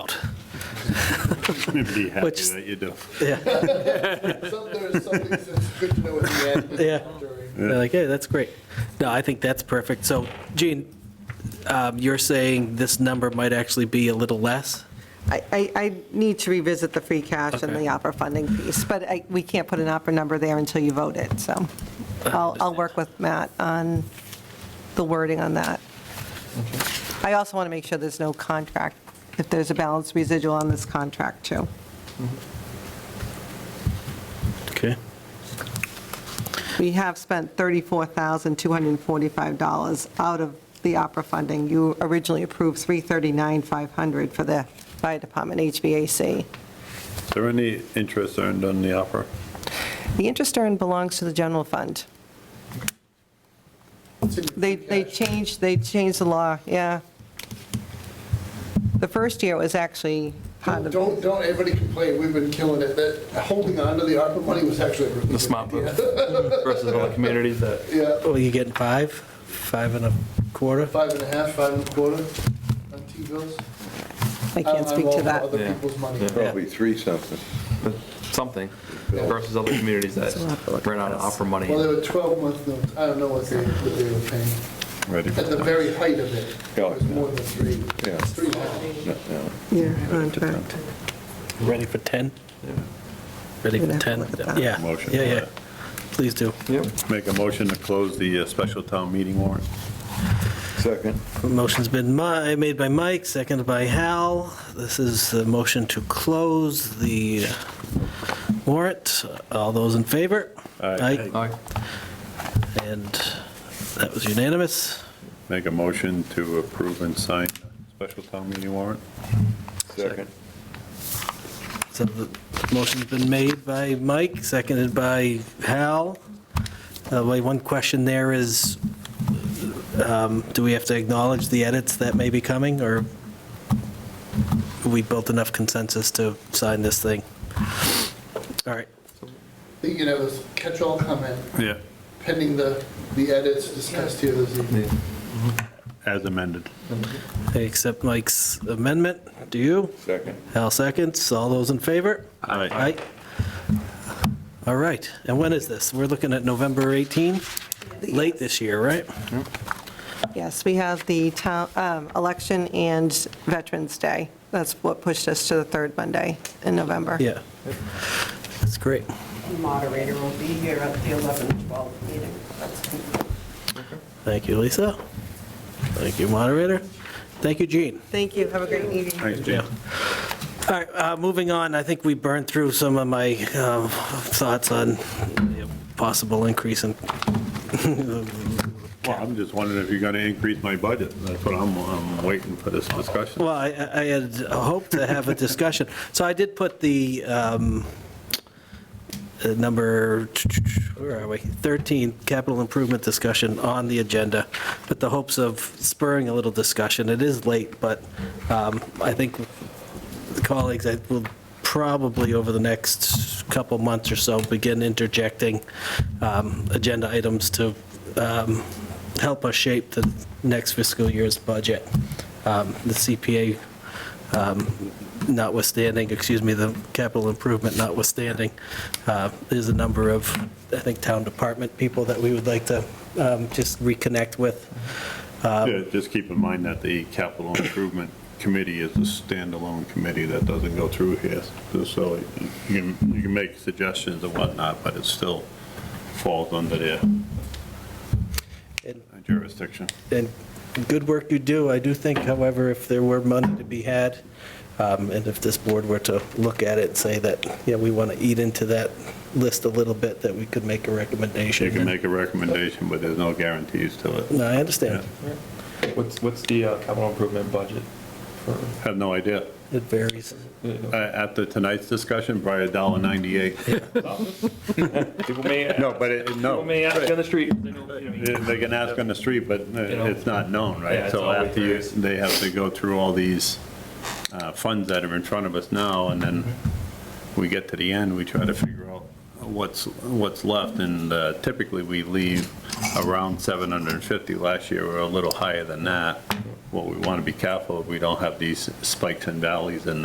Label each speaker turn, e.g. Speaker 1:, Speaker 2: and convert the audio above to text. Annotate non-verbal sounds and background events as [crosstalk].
Speaker 1: Be happy
Speaker 2: Which-
Speaker 1: that you do.
Speaker 3: Some, there's some things that's good to know at the end.
Speaker 2: Yeah.
Speaker 3: During-
Speaker 2: They're like, hey, that's great. No, I think that's perfect. So Gene, um, you're saying this number might actually be a little less?
Speaker 4: I, I I need to revisit the free cash and
Speaker 2: Okay.
Speaker 4: the opera funding piece, but I- we can't put an opera number there until you vote it, so I'll, I'll work with Matt on the wording on that. I also want to make sure there's no contract, if there's a balance residual on this contract, too.
Speaker 2: Okay.
Speaker 4: We have spent $34,245 out of the opera funding. You originally approved 339,500 for the fire department HVAC.
Speaker 1: Is there any interest earned on the opera?
Speaker 4: The interest earned belongs to the general fund.
Speaker 3: It's in
Speaker 4: They, they
Speaker 3: cash.
Speaker 4: changed, they changed the law, yeah. The first year it was actually part of,
Speaker 3: Don't, don't everybody complain, we've been killing it, that holding on to the ARPA money was actually. a really
Speaker 5: The
Speaker 3: good
Speaker 5: smart move
Speaker 3: idea.
Speaker 5: versus other communities that
Speaker 3: Yeah,
Speaker 2: Well, you getting five, five and a quarter?
Speaker 3: five and a half, five and a quarter on T-bills.
Speaker 4: I can't speak to that.
Speaker 3: Other
Speaker 5: Yeah.
Speaker 3: people's money.
Speaker 5: Yeah.
Speaker 6: Probably three something.
Speaker 5: something versus other communities that
Speaker 4: So we'll have to look
Speaker 5: ran out of opera money.
Speaker 3: Well, they were 12-month notes, I don't know what they, what they were paying.
Speaker 1: Ready for
Speaker 3: At the very height of it,
Speaker 6: Yeah.
Speaker 3: it was more than three,
Speaker 6: Yeah.
Speaker 3: three and a half.
Speaker 4: Yeah, contract.
Speaker 2: Ready for 10? Ready
Speaker 4: We'd
Speaker 2: for
Speaker 4: have to
Speaker 2: 10?
Speaker 4: look at that.
Speaker 2: Yeah,
Speaker 1: Motion
Speaker 2: yeah,
Speaker 1: for
Speaker 2: yeah.
Speaker 1: that.
Speaker 2: Please do.
Speaker 5: Yep.
Speaker 1: Make a motion to close the uh, special town meeting warrant.
Speaker 6: Second.
Speaker 2: Motion's been mi- made by Mike, seconded by Hal. This is the motion to close the warrant. All those in favor?
Speaker 1: Aye.
Speaker 5: All right.
Speaker 2: And that was unanimous.
Speaker 1: Make a motion to approve and sign the special town meeting warrant.
Speaker 6: Second.
Speaker 2: So the motion's been made by Mike, seconded by Hal. Uh, wait, One question there is, um, do we have to acknowledge the edits that may be coming, or we built enough consensus to sign this thing? All right,
Speaker 3: I think you can have a catch-all comment
Speaker 1: Yeah.
Speaker 3: pending the, the edits discussed here this evening.
Speaker 1: As amended.
Speaker 2: I accept Mike's amendment. Do you?
Speaker 6: Second.
Speaker 2: Hal seconds. All those in favor?
Speaker 1: Aye.
Speaker 2: Aye. All right, and when is this? We're looking at November 18, late this year, right?
Speaker 4: Yes, we have the town, um, election and Veterans Day. That's what pushed us to the third Monday in November.
Speaker 2: Yeah. That's great.
Speaker 7: The moderator will be here at the 11, 12 meeting. That's-
Speaker 2: Thank you, Lisa. Thank you, moderator. Thank you, Gene.
Speaker 4: Thank you, have a great evening.
Speaker 1: Thanks, Jim.
Speaker 2: All right, uh, moving on, I think we burned through some of my um, thoughts on you know, possible increase in, [laughs]
Speaker 1: Well, I'm just wondering if you're going to increase my budget. That's what I'm, I'm waiting for this discussion.
Speaker 2: well, I I had hoped to have a discussion. [laughs] So I did put the um, uh, number, where are we, 13, capital improvement discussion on the agenda, with the hopes of spurring a little discussion. It is late, but um, I think the colleagues, I will probably over the next couple months or so begin interjecting um, agenda items to um, help us shape the next fiscal year's budget. Um, The CPA um, notwithstanding, excuse me, the capital improvement notwithstanding, uh, there's a number of, I think, town department people that we would like to um, just reconnect with.
Speaker 1: Yeah, Just keep in mind that the capital improvement committee is a standalone committee that doesn't go through here. So you can, you can make suggestions and whatnot, but it still falls under their
Speaker 2: And
Speaker 1: jurisdiction.
Speaker 2: and good work you do. I do think, however, if there were money to be had, um, and if this board were to look at it and say that, yeah, we want to eat into that list a little bit, that we could make a recommendation.
Speaker 1: You can make a recommendation, but there's no guarantees to it.
Speaker 2: No, I understand.
Speaker 5: What's, what's the uh, capital improvement budget for,
Speaker 1: Have no idea.
Speaker 2: It varies.
Speaker 1: Uh, After tonight's discussion, probably a dollar 98.
Speaker 5: [laughs] people may,
Speaker 1: No, but it,
Speaker 5: people
Speaker 1: no,
Speaker 5: may ask on the street. they don't, you know, you-
Speaker 1: they can ask on the street, but uh,
Speaker 5: You know?
Speaker 1: it's not known,
Speaker 5: Yeah,
Speaker 1: right?
Speaker 5: it's
Speaker 1: So
Speaker 5: always
Speaker 1: after you,
Speaker 5: various.
Speaker 1: they have to go through all these uh, funds that are in front of us now, and then
Speaker 5: Mm-hmm.
Speaker 1: we get to the end, we try to figure out what's, what's left, and uh, typically we leave around 750. Last year, we were a little higher than that. What we want to be careful, of, we don't have these spikes and valleys in